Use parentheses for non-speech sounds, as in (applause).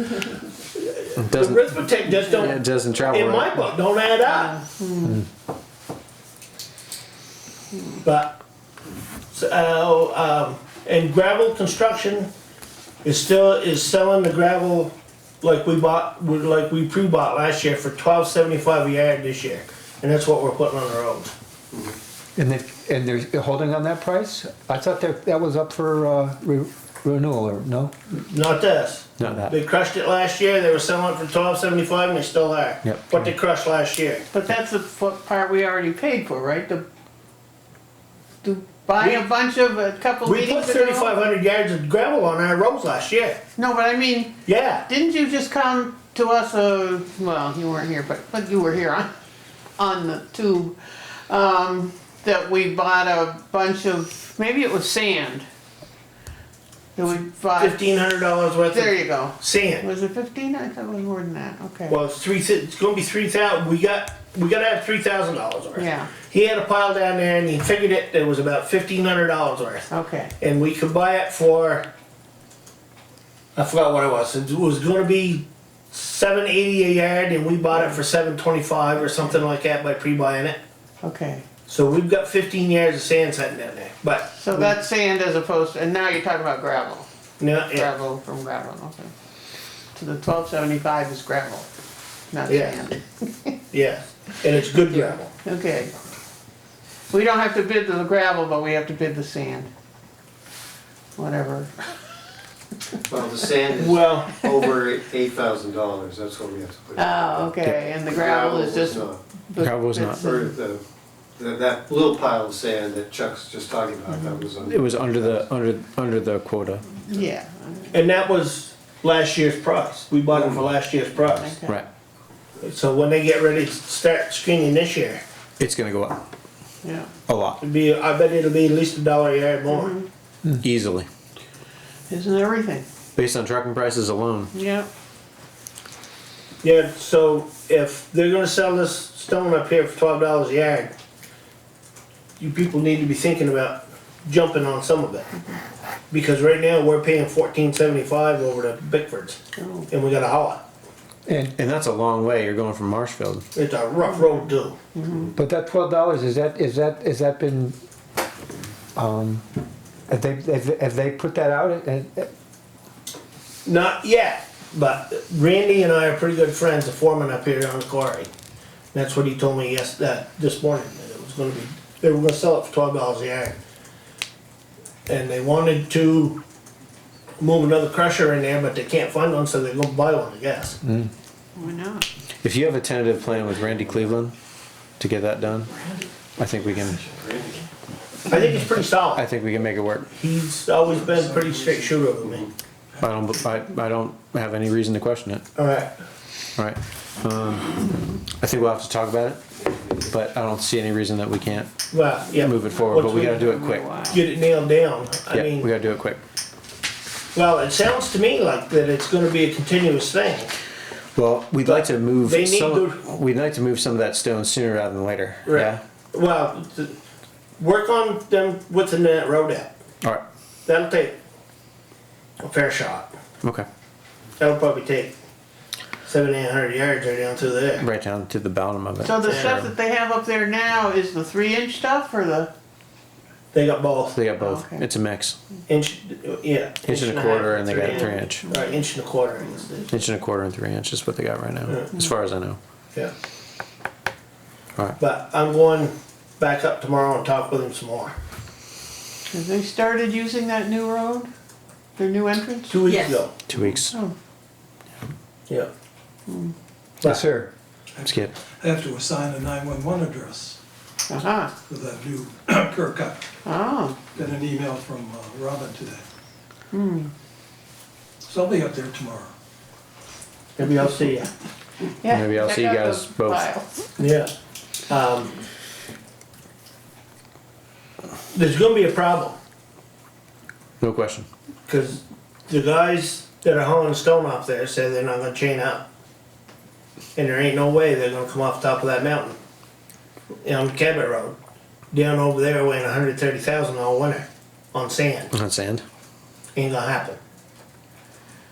It The doesn't, arithmetic just it don't, doesn't travel. in my right. book, don't add up. Mm. But, so, um, and gravel construction is still, is selling the gravel like we bought, like we pre-bought last year for twelve seventy-five a yard this year. And that's what we're putting on the roads. And they, and they're holding on that price? I thought that, that was up for, uh, re- renewal or, no? Not this. Not that. They crushed it last year, they were selling it for twelve seventy-five and they still are. Yep. What they crushed last year. But that's the f- part we already paid for, right? To, to buy a bunch of, a couple We put meetings ago? thirty-five hundred yards of gravel on our roads last year. No, but I mean, Yeah, didn't you just come to us, uh, well, you weren't here, but, but you were here on, on the tube, um, that we bought a bunch of, maybe it was sand. That we bought, fifteen hundred dollars worth there of you go. sand. Was it fifteen? I thought it was more than that, okay. Well, it's three, it's gonna be three thousand, we got, we gotta have three thousand dollars worth. Yeah. He had a pile down there and he figured it, it was about fifteen hundred dollars worth. Okay, And we could buy it for, I forgot what it was, it was gonna be seven eighty a yard and we bought it for seven twenty-five or something like that by pre-buying it. okay. So we've got fifteen yards of sand sitting down there, but. So that's sand as opposed, to- and now you're talking about gravel. No, yeah. gravel from gravel, okay. So the twelve seventy-five is gravel, not Yeah. sand. Yeah, and it's good gravel. Okay. We don't have to bid the gravel, but we have to bid the sand. Whatever. Well, the sand is Well, over eight thousand dollars, that's what we have to put in. Oh, okay, and the gravel is just. not. the- Gravel is not. Or the, the- that little pile of sand that Chuck's just talking about, that was on. It was under the, under, under the quota, Yeah, and that was last year's price. We bought it for last year's price. okay, right. So when they get ready to start screening this year, It's gonna go up yeah. a lot, it'd be, I bet it'll be at least a dollar a yard more. easily, Isn't everything, based on trucking prices alone. yeah. Yeah, so if they're gonna sell this stone up here for twelve dollars a yard, you people need to be thinking about jumping on some of it. Because right now, we're paying fourteen seventy-five over to Bickford's, Oh, and we gotta haul it. And, And that's a long way, you're going from Marshfield. It's a rough road too. but that twelve dollars, is that, is that, has that been, um, have they, have they- have they put that out? And- and- Not yet, but Randy and I are pretty good friends, the foreman up here on the quarry. That's what he told me yes, that, this morning, that it was gonna be, they were gonna sell it for twelve dollars a yard. And they wanted to move another crusher in there, but they can't find one, so they're gonna buy one, I guess. why not? If you have a tentative plan with Randy Cleveland to get that done, I think we can, I think it's pretty I solid. think we can make it work. He's always been pretty straight shooter with me. I don't, I, I don't have any reason to question it, Alright, alright? Um, I think we'll have to talk about it, but I don't see any reason that we can't well, yeah. move it forward, but once we gotta do it quick. Get it nailed down, I Yeah, mean. we gotta do it quick. Well, it sounds to me like that it's gonna be a continuous thing. Well, we'd like to move They need to- some, we'd like to move some of that stone sooner rather than later. Right. Well, th- work on them within that road out. Yeah? Alright, That'll take a fair shot. okay. That'll probably take seven, eight hundred yards right down through there. Right down to the bottom of it. So the stuff that they have up there now is the three inch stuff or the, They got both They got both. Okay. It's a mix. inch, yeah. Inch and a half, quarter and they got three inch. Right, inch and a quarter. I guess it is. Inch and a quarter and three inch is what they got right now, Yeah. as far as I know. Yeah. Alright. But I'm going back up tomorrow and talk with him some more. have they started using that new road? Their new entrance? Two weeks Yes. ago. Two weeks. Oh, Yeah. Yes, sir. Skip. I have to assign a 911 address uh-huh, for that new (coughs) curb cut. oh. Got an email from uh, Robin today. So I'll be up there tomorrow. Maybe I'll see you. Yeah, Maybe I'll check see you out guys the both. files. Yeah. Um, There's gonna be a problem. No question. Because the guys that are hauling stone off there say they're not gonna chain up. And there ain't no way they're gonna come off top of that mountain. On Cabot Road, down over there weighing hundred thirty thousand all winter on sand. On sand. Ain't gonna happen.